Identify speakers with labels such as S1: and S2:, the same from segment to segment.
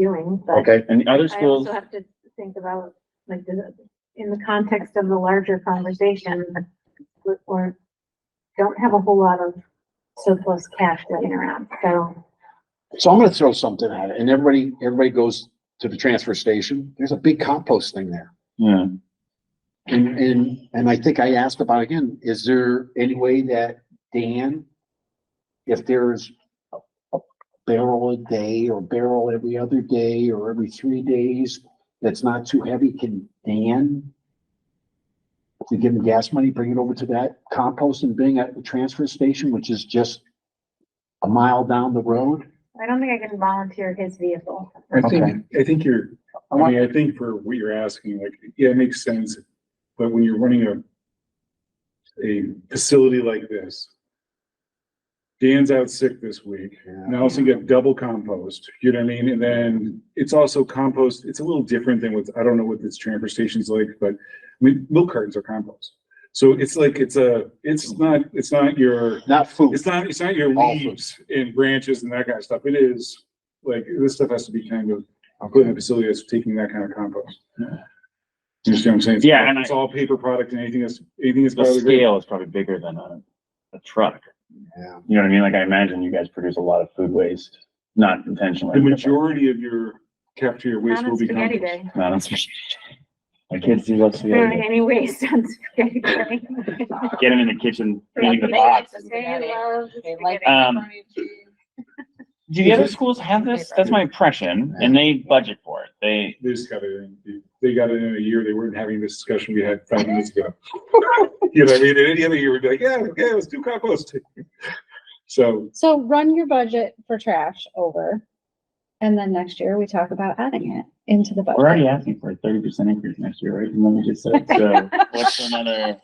S1: doing, but
S2: Okay,
S3: And the other
S1: I
S3: schools,
S1: also have to think about, like, the, in the context of the larger conversation, we're- we're, don't have a whole lot of surplus cash sitting around, so,
S2: so I'm gonna throw something at it, and everybody, everybody goes to the transfer station, there's a big compost thing there.
S3: yeah,
S2: And, and, and I think I asked about again, is there any way that Dan, if there's a- a barrel a day or barrel every other day or every three days, that's not too heavy, can Dan? If we give him gas money, bring it over to that compost and bring it at the transfer station, which is just a mile down the road?
S1: I don't think I can volunteer his vehicle.
S4: I
S2: Okay.
S4: think, I think you're,
S2: I
S4: I
S2: want-
S4: mean, I think for what you're asking, like, yeah, it makes sense, but when you're running a a facility like this. Dan's out sick this week, and I also get double compost, you know what I mean? And then it's also compost, it's a little different than what, I don't know what this transfer station's like, but I mean, milk cartons are compost. So it's like, it's a, it's not, it's not your
S2: Not food.
S4: it's not, it's not your
S2: All food.
S4: leaves and branches and that kind of stuff. It is, like, this stuff has to be kind of, put in a facility that's taking that kind of compost. You understand what I'm saying?
S3: Yeah, and I-
S4: It's all paper product and anything that's, anything that's.
S3: the
S4: biodegradable.
S3: scale is probably bigger than a, a truck.
S2: Yeah.
S3: You know what I mean? Like I imagine you guys produce a lot of food waste, not intentionally.
S4: The majority of your cafeteria waste
S1: Not on
S4: will be
S1: spaghetti
S4: compost.
S1: day.
S3: Not on- My kids do love
S1: There aren't
S3: spaghetti.
S1: any waste on spaghetti day.
S3: Get them in the kitchen, eating the
S1: They
S3: box.
S1: love
S5: They like
S1: spaghetti.
S3: Um,
S5: pepperoni cheese.
S3: Do the other schools have this? That's my impression. And they budget for it. They,
S4: They just got it in, they got it in a year. They weren't having this discussion we had five minutes ago. You know, what I mean, in any other year, we'd be like, yeah, yeah, let's do compost. So,
S6: So run your budget for trash over. And then next year we talk about adding it into the
S3: we're
S6: budget.
S3: already asking for a thirty percent increase next year, right? And then we just said, so what's another,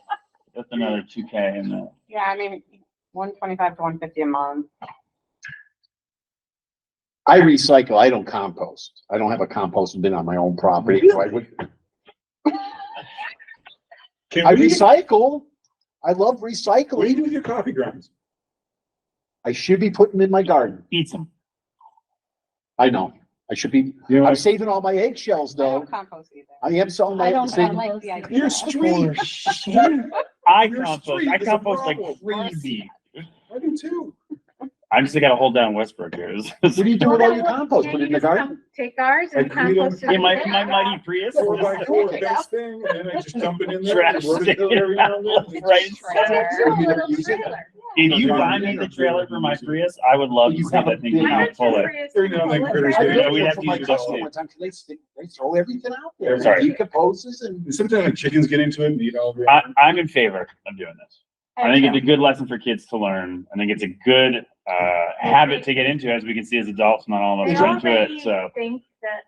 S3: that's another two K in the,
S5: Yeah, I mean, one twenty-five to one fifty a month.
S2: I recycle, I don't compost. I don't have a compost bin on my own property, so I would,
S4: can
S2: I
S4: we, what
S2: recycle. I love
S4: do you
S2: recycling.
S4: do with your coffee grounds?
S2: I should be putting them in my garden.
S3: eat some.
S2: I know. I should be,
S4: You know,
S2: I'm saving all my eggshells
S5: I don't
S2: though.
S5: compost either.
S2: I am selling
S6: I
S2: my,
S6: don't, I
S2: see,
S6: like the idea.
S4: Your street,
S3: I
S4: Your
S3: compost,
S4: street
S3: I
S4: is a
S3: compost like
S4: problem.
S3: crazy.
S4: I do too.
S3: I just gotta hold down Westbrook here.
S2: what do you do with all your compost?
S1: Can
S2: Put
S1: you
S2: it in the
S1: just
S2: garden?
S1: come Take ours and
S4: Like, we don't-
S1: compost it.
S3: In my,
S1: together?
S3: my mighty Prius.
S4: Four by four,
S5: Yeah.
S4: best thing, and then I just dump it in there.
S3: Trash
S4: and work it till every now and then.
S3: Right.
S5: Trailer.
S2: Or you don't use it?
S3: If you buy me the trailer for my Prius, I would love to see that thing come
S1: Why
S3: out
S1: don't you
S3: full of.
S1: raise-
S4: Every now and then
S1: let's
S4: critters
S1: raise-
S4: get
S3: Yeah,
S4: it.
S3: we have
S2: For
S3: to
S2: my
S3: use it all.
S2: customer one time, 'cause They, st- they throw everything out there.
S3: Sorry.
S2: Decomposes and
S4: And Sometimes like chickens get into it and eat all of it.
S3: I, I'm in favor of doing this. I think it's a good lesson for kids to learn. I think it's a good, uh, habit to get into, as we can see as adults, not all of
S1: They
S3: us are into it,
S1: already
S3: so.
S1: think that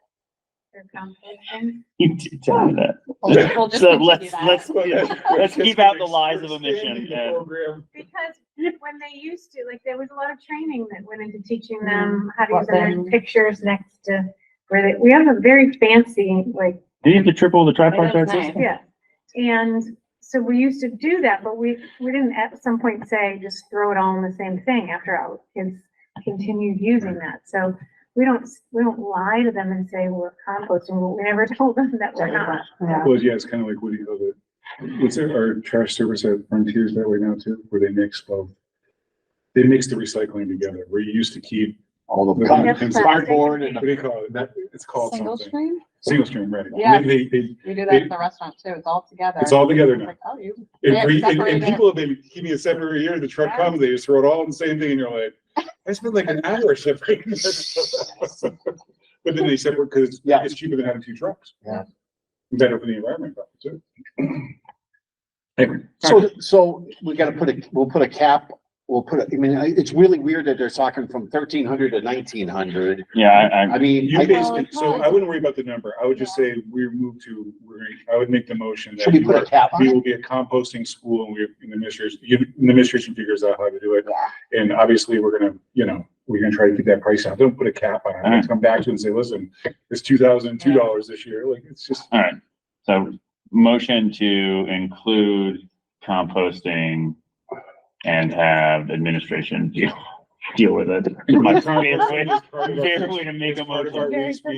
S1: they're composting.
S3: You did tell me that.
S5: Okay, we'll just
S3: So
S5: continue
S3: let's,
S5: that.
S3: let's, let's keep out the lies of omission
S4: Expanding the
S3: and-
S4: program.
S1: Because when they used to, like, there was a lot of training that went into teaching them how to
S5: What
S1: use their
S5: then?
S1: pictures next to where they, we have a very fancy, like,
S3: do you have to triple the tripod
S5: Wait,
S3: chart
S5: that's
S3: system?
S1: yeah. And so we used to do that, but we, we didn't at some point say, just throw it all in the same thing after our kids continued using that. So we don't, we don't lie to them and say we're composting, but we never told them that we're not.
S5: Yeah.
S4: Well, yeah, it's kind of like, what do you know, the, what's our, our trash service at Frontiers that way now too, where they mix both. They mix the recycling together, where you used to keep,
S2: all the
S4: Yeah,
S2: cardboard
S4: plastic.
S2: cardboard and
S4: what
S2: the-
S4: do you call it? That, it's called
S6: Single
S4: something.
S6: stream?
S4: Single stream, right?
S5: Yeah.
S4: And They, they,
S5: We do that in the restaurant too. It's all together.
S4: It's all together now.
S5: It's like, Oh, you.
S4: And,
S5: Yeah,
S4: pre- and,
S5: separated.
S4: and people have been keeping it separate every year. The truck
S5: Yeah.
S4: comes, they just throw it all in the same thing, and you're like, I spent like an hour separating. this." but then they separate because
S2: Yeah.
S4: it's cheaper than having two trucks.
S2: Yeah.
S4: Better for the environment, probably, too. Anyway,
S2: So, so we gotta put a, we'll put a cap, we'll put a, I mean, I- it's really weird that they're talking from thirteen hundred to nineteen hundred.
S3: Yeah, I,
S2: I
S3: I,
S2: mean,
S4: you
S2: I think,
S4: basically, so I wouldn't worry about the number. I would just say we move to, we're, gonna- I would make the motion that
S2: should we
S4: we
S2: put a
S4: are-
S2: cap on
S4: we
S2: it?
S4: will be a composting school and we, and the administration, you- the administration figures out how to do it. And obviously, we're gonna, you know, we're gonna try to get that price out. Don't put a cap on it.
S3: Mm.
S4: Let's come back to it and say, listen, it's two thousand and two dollars this year. Like, it's just,
S3: all right. So motion to include composting and have administration deal, deal with it.
S4: It's
S3: My
S4: part of
S3: favorite
S4: our-
S3: way- favorite way to make
S4: it's
S3: a
S4: part of
S3: motion.
S4: our waste